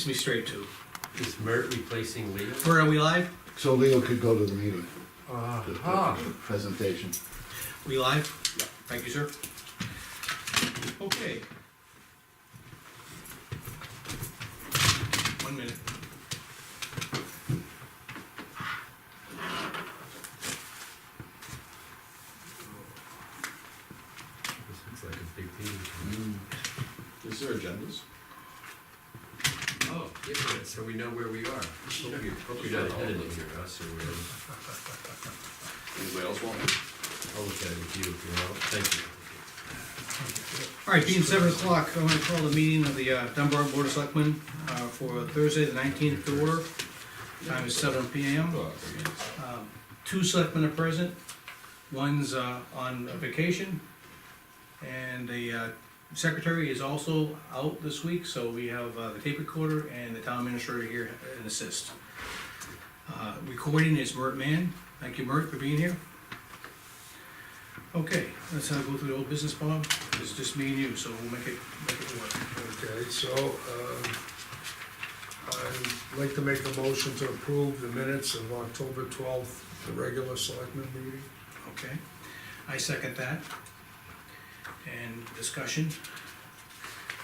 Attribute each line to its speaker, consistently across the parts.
Speaker 1: leads me straight to.
Speaker 2: Is Mert replacing Leo?
Speaker 1: Where are we live?
Speaker 3: So Leo could go to the meeting, the- the
Speaker 2: Uh-huh.
Speaker 3: presentation.
Speaker 1: We live? Thank you, sir. Okay. One minute.
Speaker 2: This looks like a big meeting.
Speaker 4: Is there agendas?
Speaker 2: Oh, yeah, but so we know where we are. Hope you- hope you're not editing here, us, or we're,
Speaker 4: Anybody else want?
Speaker 2: I'll look at it with you if you want. Thank you.
Speaker 1: All right, being seven o'clock, I'm gonna call the meeting of the uh, Dunbar Board of Selectmen uh, for Thursday, the nineteenth to order. Time is seven P M. Um, Two selectmen are present, one's uh, on vacation, and the uh, secretary is also out this week, so we have uh, the tape recorder and the town administrator here and assist. Uh, Recording is Mert Mann, thank you, Mert, for being here. Okay, let's uh, go through the old business, Bob, it's just me and you, so we'll make it, make it work.
Speaker 5: Okay, so, um, I'd like to make a motion to approve the minutes of October twelfth, the regular selectmen meeting.
Speaker 1: Okay, I second that. And discussion.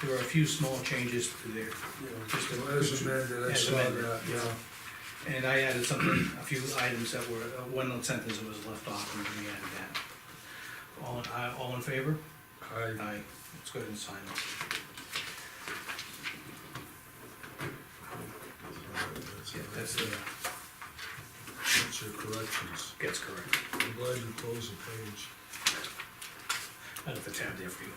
Speaker 1: There are a few small changes to there,
Speaker 5: You know, just As amended, I
Speaker 1: As
Speaker 5: saw
Speaker 1: amended,
Speaker 5: that, yeah.
Speaker 1: and I added something, a few items that were, uh, one sentence that was left off, and we added that. All, uh, all in favor?
Speaker 5: I,
Speaker 1: Aye. Let's go ahead and sign it. Yeah, that's uh, the,
Speaker 5: that's your corrections.
Speaker 1: gets correct.
Speaker 5: I'm glad you closed the page.
Speaker 1: I left the tab there for you.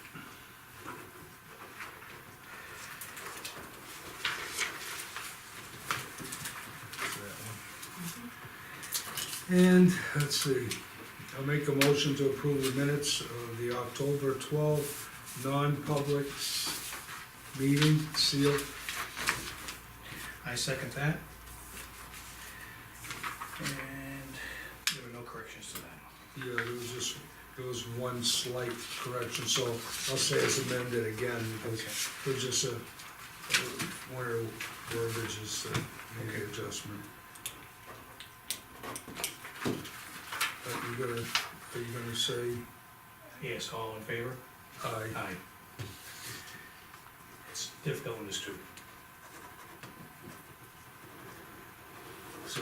Speaker 5: Mm-hmm. And, let's see, I'll make a motion to approve the minutes of the October twelfth, non-public s- meeting, sealed.
Speaker 1: I second that. And there were no corrections to that.
Speaker 5: Yeah, there was just, there was one slight correction, so I'll say it's amended again, because it was just a, one or verbiage is, uh, made an adjustment. But you're gonna, are you gonna say
Speaker 1: Yes, all in favor?
Speaker 5: aye?
Speaker 1: Aye. It's difficult in this too.
Speaker 5: So,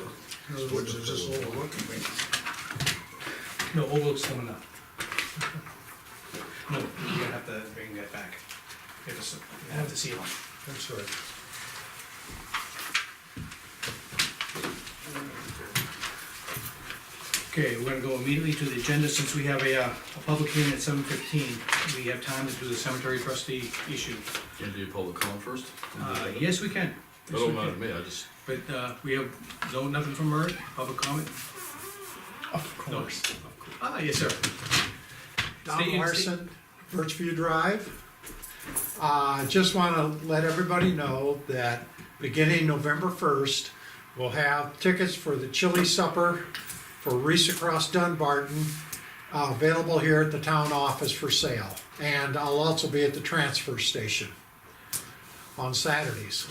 Speaker 5: in other words, it's just overlooking me.
Speaker 1: No, overlook's coming up. No, you're gonna have to bring that back. You have to, s- you have to see one.
Speaker 5: That's right.
Speaker 1: Okay, we're gonna go immediately to the agenda, since we have a, uh, a public hearing at seven fifteen, we have time to do the cemetery trustee issue.
Speaker 4: Can do public comment first?
Speaker 1: Uh, yes, we can.
Speaker 4: It
Speaker 1: Yes, we
Speaker 4: don't
Speaker 1: can.
Speaker 4: matter to me, I just,
Speaker 1: But, uh, we have, no, nothing from Murray, public comment? Of course. Ah, yes, sir. Stay in-
Speaker 6: Don
Speaker 1: stay-
Speaker 6: Larson, Birchview Drive. Uh, just wanna let everybody know that beginning November first, we'll have tickets for the chili supper for Reese Across Dunbarton, uh, available here at the town office for sale. And I'll also be at the transfer station on Saturdays.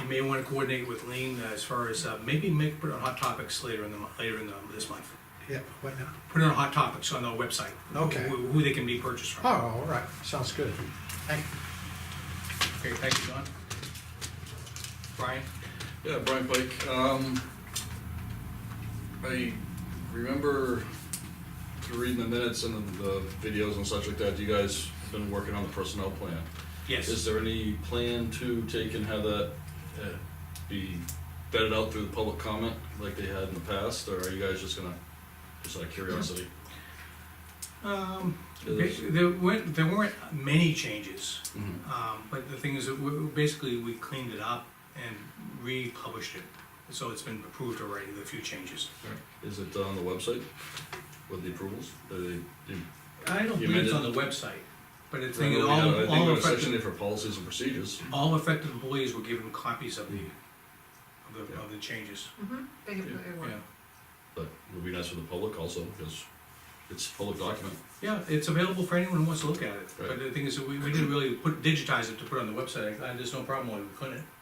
Speaker 1: You may wanna coordinate with Lean as far as, uh, maybe make, put it on hot topics later in the, mo- later in the, this month.
Speaker 6: Yeah, what now?
Speaker 1: Put it on hot topics on the website.
Speaker 6: Okay.
Speaker 1: Who, who they can be purchased from.
Speaker 6: Oh, all right, sounds good. Thank you.
Speaker 1: Okay, thank you, John. Brian?
Speaker 4: yeah, Brian Pike, um, I remember through reading the minutes and the- the videos and such like that, you guys have been working on the personnel plan. Is there any plan to take and have that uh, be vetted out through the public comment like they had in the past, or are you guys just gonna, just out of curiosity?
Speaker 1: Um, Ba- There weren't, there weren't many changes,
Speaker 4: Mhm.
Speaker 1: um, but the thing is, that we- basically, we cleaned it up and republished it. So it's been approved already, the few changes.
Speaker 4: Is it on the website with the approvals? Are they- you-
Speaker 1: I don't
Speaker 4: You
Speaker 1: believe it's on
Speaker 4: meant
Speaker 1: the website, but it's,
Speaker 4: I know we
Speaker 1: all,
Speaker 4: had- I think
Speaker 1: all
Speaker 4: it was section
Speaker 1: affected,
Speaker 4: there for policies and procedures.
Speaker 1: all affected employees were given copies of the, of the, of the changes,
Speaker 7: Mm-hmm, they,
Speaker 4: Yeah.
Speaker 7: they
Speaker 1: yeah.
Speaker 7: were.
Speaker 4: But it would be nice for the public also, because it's a public document.
Speaker 1: Yeah, it's available for anyone who wants to look at it, but
Speaker 4: Right.
Speaker 1: the thing is, that we, we didn't really put, digitize it to put on the website, I, there's no problem why we couldn't.